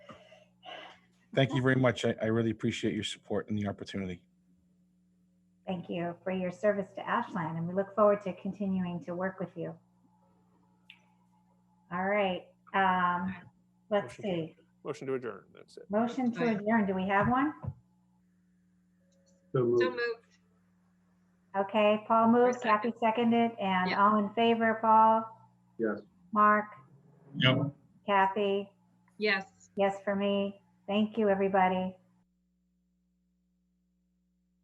Thank you very much. I, I really appreciate your support and the opportunity. Thank you for your service to Ashland, and we look forward to continuing to work with you. All right, um, let's Motion to- see. Motion to adjourn, that's it. Motion to Aye. adjourn. Do we have one? So So moved. moved. Okay, Paul moves, Kathy second. seconded, and Yeah. all in favor, Paul, Yes. Mark, Yep. Kathy, Yes. yes for me. Thank you, everybody.